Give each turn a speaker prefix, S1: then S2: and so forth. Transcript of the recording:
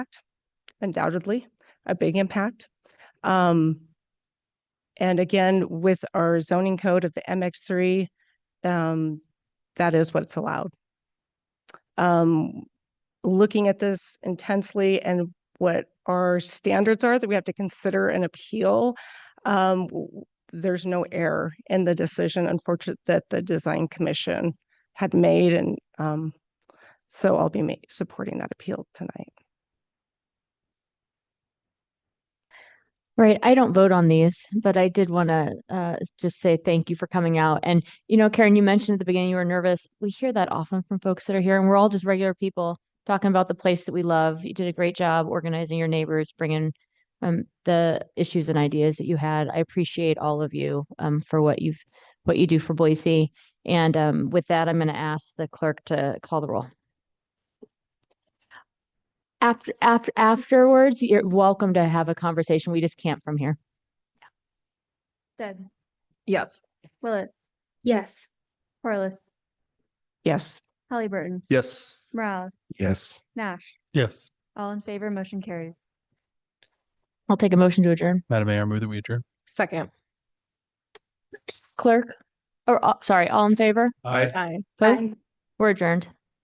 S1: impact, undoubtedly, a big impact. Um, and again, with our zoning code of the MX three, um, that is what's allowed. Um, looking at this intensely and what our standards are that we have to consider an appeal, um, w- w- there's no error in the decision, unfortunate that the design commission had made and, um, so I'll be ma- supporting that appeal tonight.
S2: Right. I don't vote on these, but I did want to uh, just say thank you for coming out. And, you know, Karen, you mentioned at the beginning you were nervous. We hear that often from folks that are here, and we're all just regular people talking about the place that we love. You did a great job organizing your neighbors, bringing um, the issues and ideas that you had. I appreciate all of you um, for what you've what you do for Boise. And um, with that, I'm going to ask the clerk to call the roll. After after afterwards, you're welcome to have a conversation. We just can't from here.
S3: Deb,
S4: Yes.
S3: Willetts,
S5: Yes.
S3: Corliss,
S1: Yes.
S3: Halliburton,
S4: Yes.
S3: Morales,
S6: Yes.
S3: Nash,
S4: Yes.
S3: all in favor, motion carries.
S2: I'll take a motion to adjourn.
S4: Madam Mayor, I move that we adjourn.
S7: Second.
S2: Clerk, or uh, sorry, all in favor?
S4: Aye.
S7: Aye.
S2: Opposed? We're adjourned.